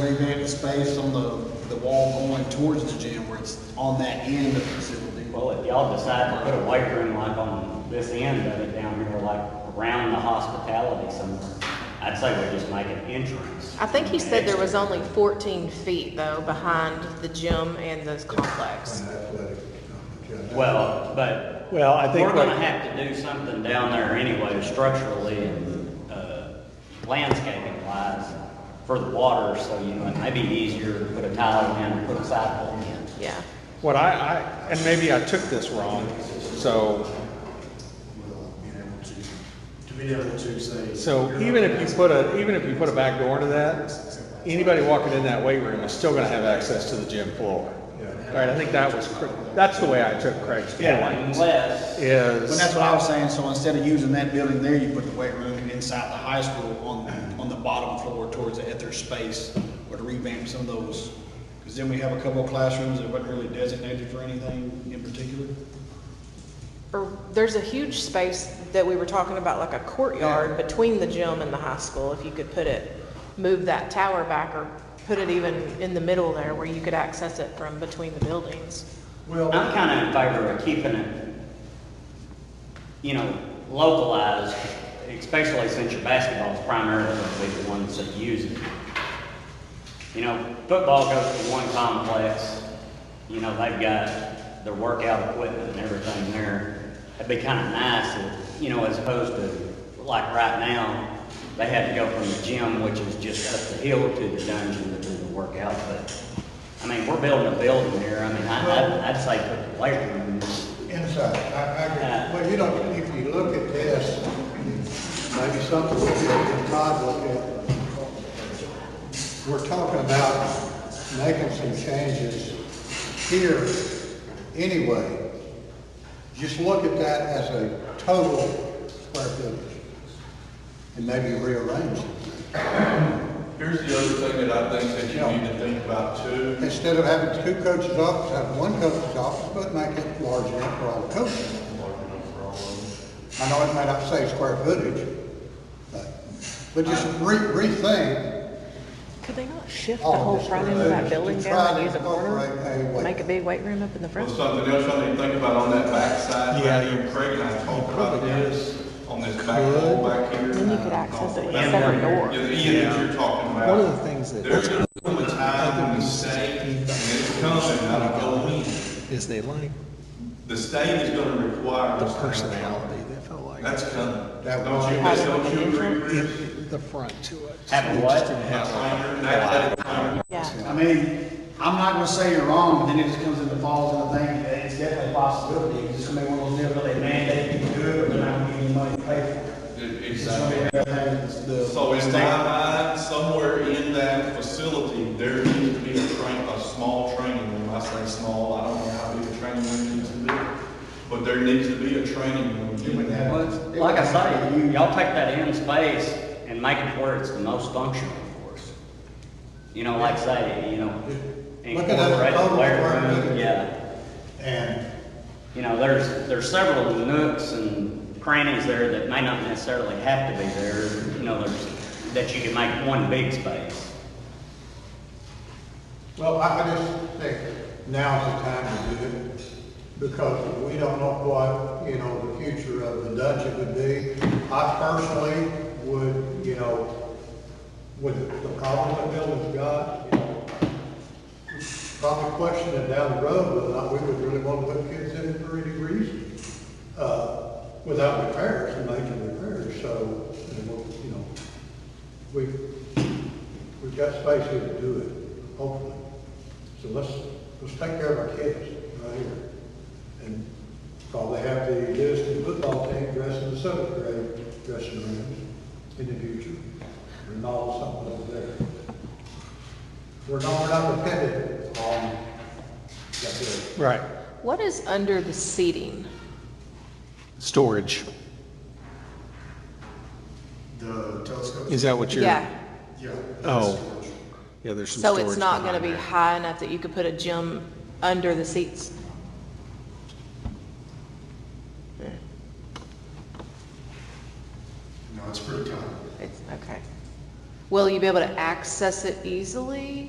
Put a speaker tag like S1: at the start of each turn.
S1: revamp the space on the, the wall going towards the gym where it's on that end of the facility.
S2: Well, if y'all decide to put a weight room like on this end of it down here, like around the hospitality somewhere, I'd say we just make an entrance.
S3: I think he said there was only 14 feet though behind the gym and the complex.
S4: an athletic, um, agenda.
S2: Well, but
S5: Well, I think
S2: We're gonna
S5: what-
S2: have to do something down there anyway, structurally and, uh, landscaping wise for the water, so, you know, it may be easier to put a tile in, put a sidewalk in.
S3: Yeah.
S5: What I, I, and maybe I took this wrong, so,
S6: Well, being able to, to be able to say.
S5: so even if you put a, even if you put a back door to that, anybody walking in that weight room is still gonna have access to the gym floor. Right, I think that was, cr- that's the way I took Craig's point,
S2: Unless,
S1: But
S5: is.
S1: that's what I was saying, so instead of using that building there, you put the weight room inside the high school on, on the bottom floor towards the Ether space, or to revamp some of those. Because then we have a couple of classrooms that weren't really designated for anything in particular.
S3: Or there's a huge space that we were talking about, like a courtyard between the gym and the high school. If you could put it, move that tower back or put it even in the middle there where you could access it from between the buildings.
S6: Well,
S2: I'm kinda in favor of keeping it, you know, localized, especially since your basketball's primarily gonna be the ones that use it. You know, football goes to one complex, you know, they've got their workout equipment and everything there. It'd be kind of nice if, you know, as opposed to, like right now, they had to go from the gym, which is just up the hill to the dungeon to do the workout, but, I mean, we're building a building here, I mean, I, I'd, I'd say put the weight rooms.
S4: Inside, I, I, agree. well, you know, if you look at this, maybe something we could, Todd look at. We're talking about making some changes here anyway. Just look at that as a total square footage and maybe rearrange it.
S7: Here's the other thing that I think that you need to think about too.
S4: Instead of having two coaches' office, have one coach's office, but make it large enough for all the coaches. I know it may not say square footage, but, but just re, rethink.
S3: Could they not shift
S4: all of this to try to incorporate a way-
S3: big weight room up in the
S7: Well, something else I need to think about on that backside,
S5: Yeah,
S7: right
S5: you-
S7: here, Craig and I talked about this, on this back
S5: could.
S7: wall back here.
S3: Then you could access it with a
S2: And one-
S3: separate door.
S7: Yeah, the end that you're talking about.
S5: One of the things that-
S7: There's gonna come a time when the state, and it's coming, I don't know when,
S5: Is they like
S7: the state is gonna require.
S5: the
S7: us to have-
S5: personality, they felt like.
S7: That's coming.
S4: That
S7: Don't you,
S3: was-
S7: don't you agree, Chris?
S5: The front to it.
S2: Have a what?
S7: An athletic trainer.
S3: Yeah.
S1: I mean, I'm not gonna say you're wrong, but then it just comes into falls and I think that it's definitely a possibility. It's just gonna be one of those deals where they mandate you to do it, but they're not gonna give you money to pay for it.
S7: Exactly.
S1: Everything's the-
S7: So in my mind, somewhere in that facility, there needs to be a train, a small training room. I say small, I don't know how big a training room needs to be, but there needs to be a training room. in that.
S2: Well, it's- Like I say, you, y'all take that in space and make it where it's the most functional for us. You know, like say, you know,
S4: Look at that
S2: incorporate the
S4: total
S2: weight
S4: square
S2: room,
S4: footage.
S2: yeah.
S4: And
S2: You know, there's, there's several nooks and crannies there that may not necessarily have to be there, you know, there's, that you can make one big space.
S4: Well, I, I just think now's the time to do it, because we don't know what, you know, the future of the dungeon would be. I personally would, you know, with the problem that Milton's got, you know, probably question it down the road whether or not we would really want to put kids in for any reason, uh, without repairs, and making repairs, so, and we'll, you know, we, We've got space here to do it, hopefully. So let's, let's take care of our kids right here. And probably have the Lewiston football team dressed in the seventh grade dressing rooms in the future. Remodel something over there. We're not, we're not dependent on that building.
S5: Right,
S3: What is under the seating?
S5: storage,
S6: the telescope.
S5: is that what you're?
S3: Yeah.
S6: Yeah.
S5: Oh. Yeah, there's some
S3: So
S5: storage.
S3: it's not gonna
S5: behind
S3: be
S5: there.
S3: high enough that you could put a gym under the seats?
S6: No, it's pretty common.
S3: It's, okay. Will you be able to access it easily?